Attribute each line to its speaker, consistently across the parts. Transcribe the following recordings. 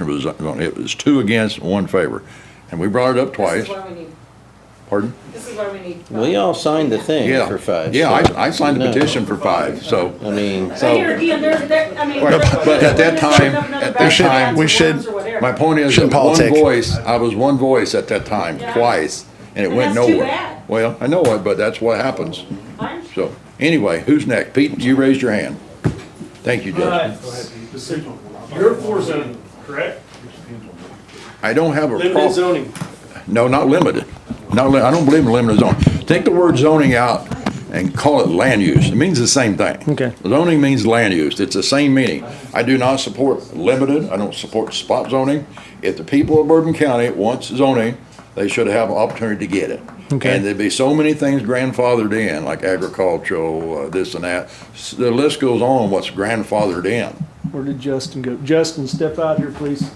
Speaker 1: motion was going, it was two against, one favor. And we brought it up
Speaker 2: This
Speaker 1: twice.
Speaker 2: is where we need,
Speaker 1: Pardon?
Speaker 2: this is where we need.
Speaker 3: We all signed the thing
Speaker 1: Yeah.
Speaker 3: for five.
Speaker 1: Yeah,
Speaker 3: so-
Speaker 1: I, I signed the
Speaker 3: No.
Speaker 1: petition for five, so.
Speaker 3: I mean,
Speaker 2: But here again, there's, there, I mean.
Speaker 1: Right,
Speaker 2: there's-
Speaker 1: but at that
Speaker 2: there's
Speaker 1: time-
Speaker 2: another
Speaker 1: at that
Speaker 2: batch of
Speaker 1: time,
Speaker 2: cats
Speaker 4: we
Speaker 2: or
Speaker 4: should-
Speaker 2: worms or whatever.
Speaker 1: My point is,
Speaker 4: Shouldn't
Speaker 1: that one
Speaker 4: politic.
Speaker 1: voice, I was one voice at that time,
Speaker 2: Yeah.
Speaker 1: twice, and it
Speaker 2: And
Speaker 1: went
Speaker 2: that's too
Speaker 1: nowhere.
Speaker 2: bad.
Speaker 1: Well, I know it, but that's what happens.
Speaker 2: Fine.
Speaker 1: So, anyway, who's next? Pete, you raised your hand. Thank you, Justin.
Speaker 5: You're for zoning, correct?
Speaker 1: I don't have a
Speaker 5: Limited
Speaker 1: problem.
Speaker 5: zoning.
Speaker 1: No, not limited. Not, li- I don't believe in limited zoning. Take the word zoning out and call it land use. It means the same thing.
Speaker 4: Okay.
Speaker 1: Zoning means land use. It's the same meaning. I do not support limited. I don't support spot zoning. If the people of Bourbon County wants zoning, they should have an opportunity to get it.
Speaker 4: Okay.
Speaker 1: And there'd be so many things grandfathered in, like agricultural, uh, this and that. S- The list goes on, what's grandfathered in.
Speaker 4: Where did Justin go? Justin, step out here, please.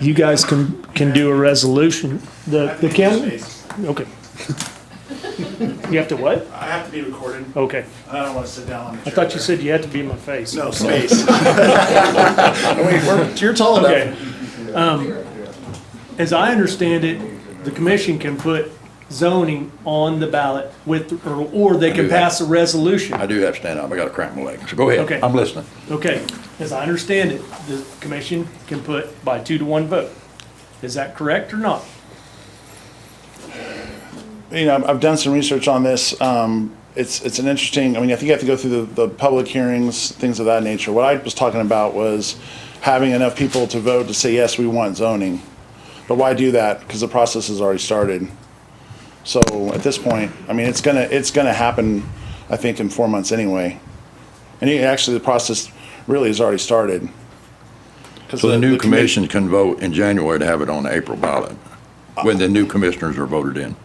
Speaker 4: You guys can, can do a resolution. The, the county, okay. You have to what?
Speaker 5: I have to be recorded.
Speaker 4: Okay.
Speaker 5: I don't want to sit down on the
Speaker 4: I thought you said you had to be in my face.
Speaker 5: No, space.
Speaker 4: You're tall enough. Okay. Um, As I understand it, the commission can put zoning on the ballot with, or, or they can
Speaker 1: do that.
Speaker 4: pass a resolution.
Speaker 1: I do have to stand up. I got a cramp in my leg. So go
Speaker 4: Okay.
Speaker 1: ahead. I'm listening.
Speaker 4: Okay, as I understand it, the commission can put by two to one vote. Is that correct or not?
Speaker 6: you know, I've- I've done some research on this. Um, it's it's an interesting. I mean, I think you have to go through the, the public hearings, things of that nature. What I was talking about was having enough people to vote to say yes, we want zoning. But why do that? Because the process has already started. So at this point, I mean, it's gonna it's gonna happen. I think in four months anyway, and it- actually the process really has already started. 'Cause
Speaker 1: So the new
Speaker 6: commi-
Speaker 1: commission can vote in January to have it on the April ballot, when the new commissioners are voted in,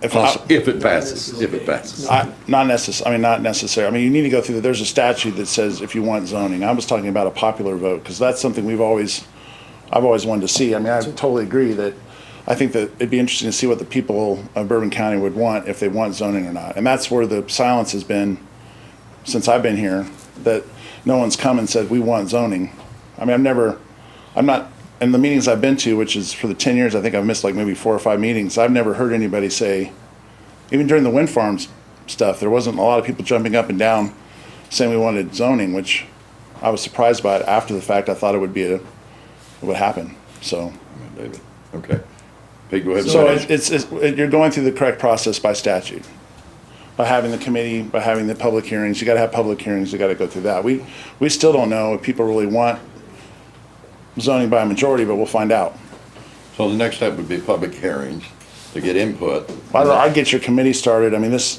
Speaker 6: if I-
Speaker 1: Poss- if it passes, if it passes.
Speaker 6: I, not necess, I mean, not necessary. I mean, you need to go through, the- there's a statute that says if you want zoning. I was talking about a popular vote, because that's something we've always, I've always wanted to see. I mean, I totally agree that, I think that it'd be interesting to see what the people of Bourbon County would want, if they want zoning or not. And that's where the silence has been since I've been here, that no one's come and said, we want zoning. I mean, I've never, I'm not, in the meetings I've been to, which is for the ten years, I think I've missed like maybe four or five meetings, I've never heard anybody say, even during the wind farms stuff, there wasn't a lot of people jumping up and down saying we wanted zoning, which I was surprised by it after the fact. I thought it would be a, it would happen, so.
Speaker 1: David, Okay. Pete, go ahead. and
Speaker 6: So
Speaker 1: finish.
Speaker 6: it's, it's, it's- it- you're going through the correct process by statute, by having the committee, by having the public hearings. You gotta have public hearings, you gotta go through that. We, we still don't know if people really want zoning by a majority, but we'll find out.
Speaker 1: So the next step would be public hearings to get input.
Speaker 6: I, I get your committee started. I mean, this,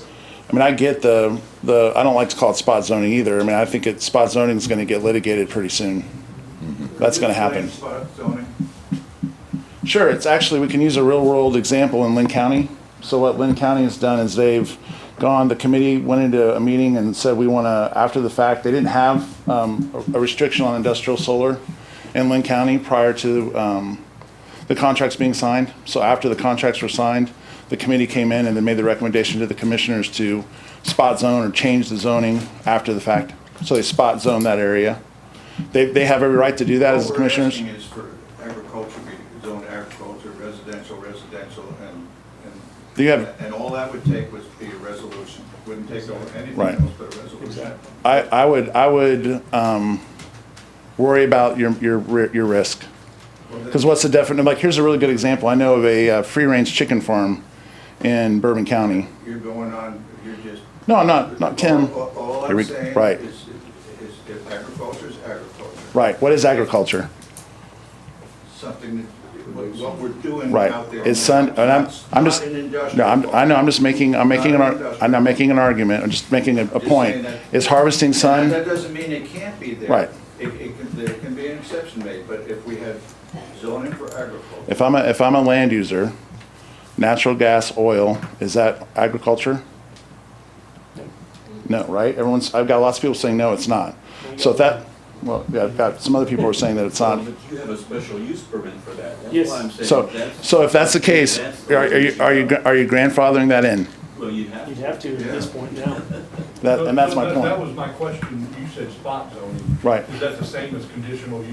Speaker 6: I mean, I get the, the, I don't like to call it spot zoning either. I mean, I think it, spot zoning is gonna get litigated pretty soon. That's gonna happen. Sure, it's actually, we can use a real world example in Lynn County. So what Lynn County has done is they've gone, the committee went into a meeting and said, we wanna, after the fact, they didn't have, um, a a restriction on industrial solar in Lynn County prior to, um, the contracts being signed. So after the contracts were signed, the committee came in and then made the recommendation to the commissioners to spot zone or change the zoning after the fact. So they spot zone that area. They, they have every right to do that as the commissioners.
Speaker 7: What we're asking is for agriculture, be zoned agriculture, residential, residential, and, and.
Speaker 6: Do you have-
Speaker 7: And all that would take was be a resolution, wouldn't take over anything
Speaker 6: Right.
Speaker 7: else but a resolution.
Speaker 6: I, I would, I would, um, worry about your, your, ri- your risk. Cause what's the definite, like, here's a really good example. I know of a, uh, free range chicken farm in Bourbon County.
Speaker 7: You're going on, you're just.
Speaker 6: No, I'm not, not Tim.
Speaker 7: All- All all
Speaker 6: Here
Speaker 7: I'm
Speaker 6: we-
Speaker 7: saying
Speaker 6: right.
Speaker 7: is, is if agriculture is agriculture,
Speaker 6: Right. What is agriculture?
Speaker 7: something that, what what we're doing
Speaker 6: Right.
Speaker 7: out there.
Speaker 6: It's sun, and I'm,
Speaker 7: It's
Speaker 6: I'm
Speaker 7: not
Speaker 6: just,
Speaker 7: an
Speaker 6: no,
Speaker 7: industrial
Speaker 6: I'm, I know, I'm just making, I'm making an,
Speaker 7: Not
Speaker 6: ar-
Speaker 7: an industrial.
Speaker 6: I'm not making an argument. I'm just making a, a
Speaker 7: saying
Speaker 6: point.
Speaker 7: that-
Speaker 6: It's harvesting
Speaker 7: Now,
Speaker 6: sun.
Speaker 7: That doesn't mean it can't be there.
Speaker 6: Right.
Speaker 7: It, it can, there can be an exception made, but if we have zoning for agriculture,
Speaker 6: If I'm a, if I'm a land user, natural gas, oil, is that agriculture? No, right? Everyone's, I've got lots of people saying, no, it's not. So if that, well, yeah, I've got some other people are saying that it's not.
Speaker 8: But you have a special use permit for that.
Speaker 4: Yes.
Speaker 8: That's why I'm saying
Speaker 6: So,
Speaker 8: that's,
Speaker 6: so if that's the case, are are you, are you, are you grandfathering that in?
Speaker 8: well, you have
Speaker 4: You'd have to at this point now.
Speaker 6: That, and that's my
Speaker 5: That
Speaker 6: point.
Speaker 5: was my question. You you said spot zoning.
Speaker 9: Right.
Speaker 5: Is that the same as conditional use?